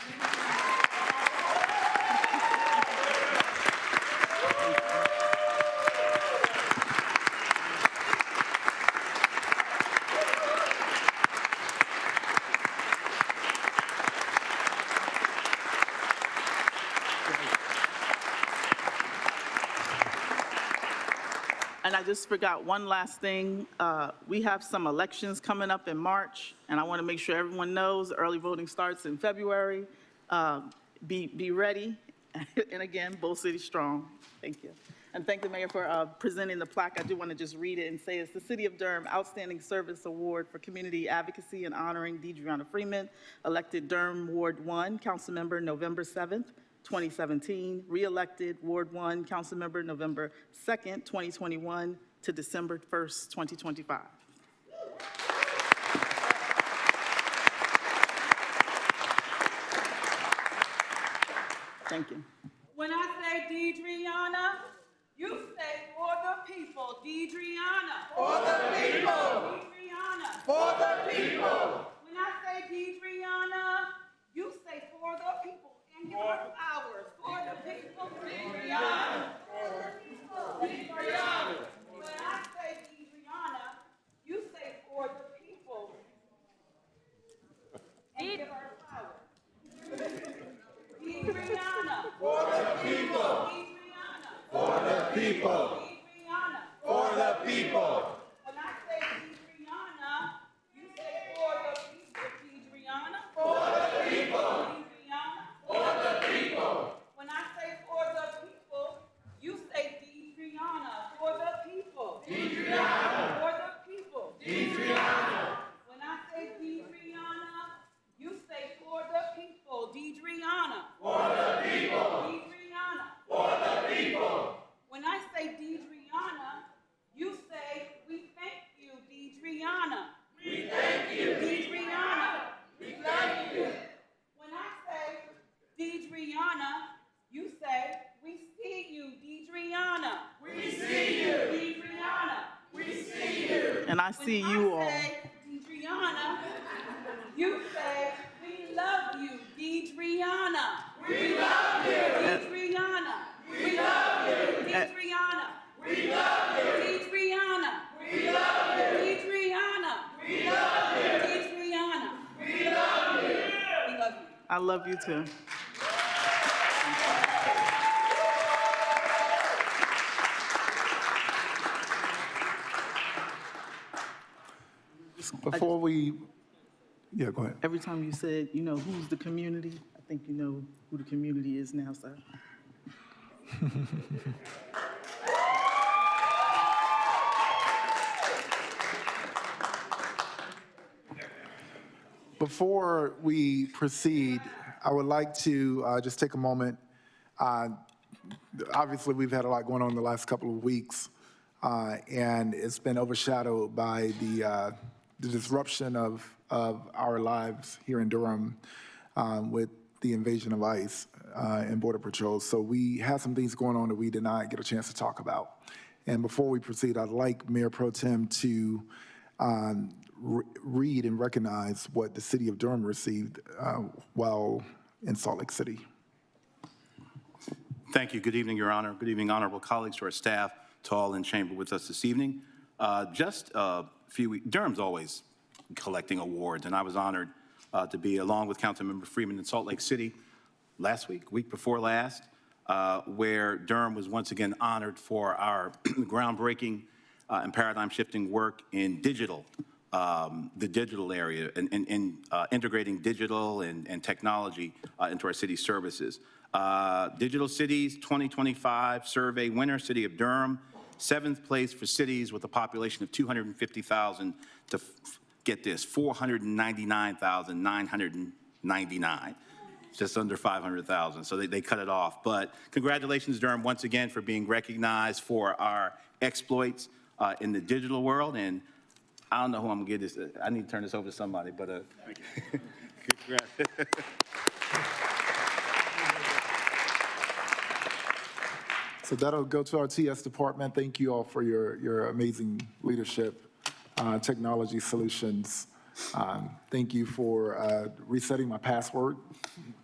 I just forgot one last thing. Uh, We have some elections coming up in March, and I want to make sure everyone knows, early voting starts in February. Um, Be, be ready. And again, Bull City strong. Thank you. And thank the mayor for uh, presenting the plaque. I do want to just read it and say it's the City of Durham Outstanding Service Award for Community Advocacy and honoring Deidreana Freeman, elected Durham Ward 1, council member, November 7th, 2017, re-elected Ward 1, council member, November 2nd, 2021 to December 1st, 2025. Thank you. When I say Deidreana, you say for the people, Deidreana. For the people. Deidreana. For the people. When I say Deidreana, you say for the people and give us ours. For the people, Deidreana. For the people, Deidreana. When I say Deidreana, you say for the people and give us ours. Deidreana. For the people. For the people. When I say Deidreana, you say for the people. Deidreana. For the people. Deidreana. For the people. When I say for the people, you say Deidreana. For the people. Deidreana. For the people. Deidreana. When I say Deidreana, you say for the people. Deidreana. For the people. Deidreana. When I say Deidreana, you say, "We thank you, Deidreana." We thank you, Deidreana. We thank you. When I say Deidreana, you say, "We see you, Deidreana." We see you, Deidreana. We see you. And I see you When all. I say Deidreana, you say, "We love you, Deidreana." We love you, Deidreana. We love you, Deidreana. Deidreana. We love you. Deidreana. We love you. Deidreana. We love you. We love you. I love you too. Before we, yeah, go ahead. Every time you said, you know, who's the community, I think you know who the community is now, sir. Before we proceed, I would like to uh, just take a moment. Uh, Obviously, we've had a lot going on in the last couple of weeks, uh, and it's been overshadowed by the uh, the disruption of, of our lives here in Durham um, with the invasion of ICE uh, and Border Patrol. So we had some things going on that we did not get a chance to talk about. And before we proceed, I'd like Mayor Pro Tem to um, re- read and recognize what the city of Durham received uh, while in Salt Lake City. Thank you. Good evening, Your Honor. Good evening, honorable colleagues, to our staff, to all in chamber with us this evening. Uh, Just a few, we- Durham's always collecting awards, and I was honored uh, to be, along with Councilmember Freeman, in Salt Lake City last week, week before last, uh, where Durham was once again honored for our groundbreaking uh, and paradigm-shifting work in digital, um, the digital area, and- and and, uh, integrating digital and and technology uh, into our city services. Uh, Digital Cities 2025 Survey winner, City of Durham, seventh place for cities with a population of 250,000 to, f- get this, 499,999 just under 500,000, so they, they cut it off. But congratulations, Durham, once again, for being recognized for our exploits uh, in the digital world, and I don't know who I'm gonna give this, uh, I need to turn this over to somebody, but, uh, So that'll go to our TS department. Thank you all for your, your amazing leadership, uh, technology solutions. Um, Thank you for uh, resetting my password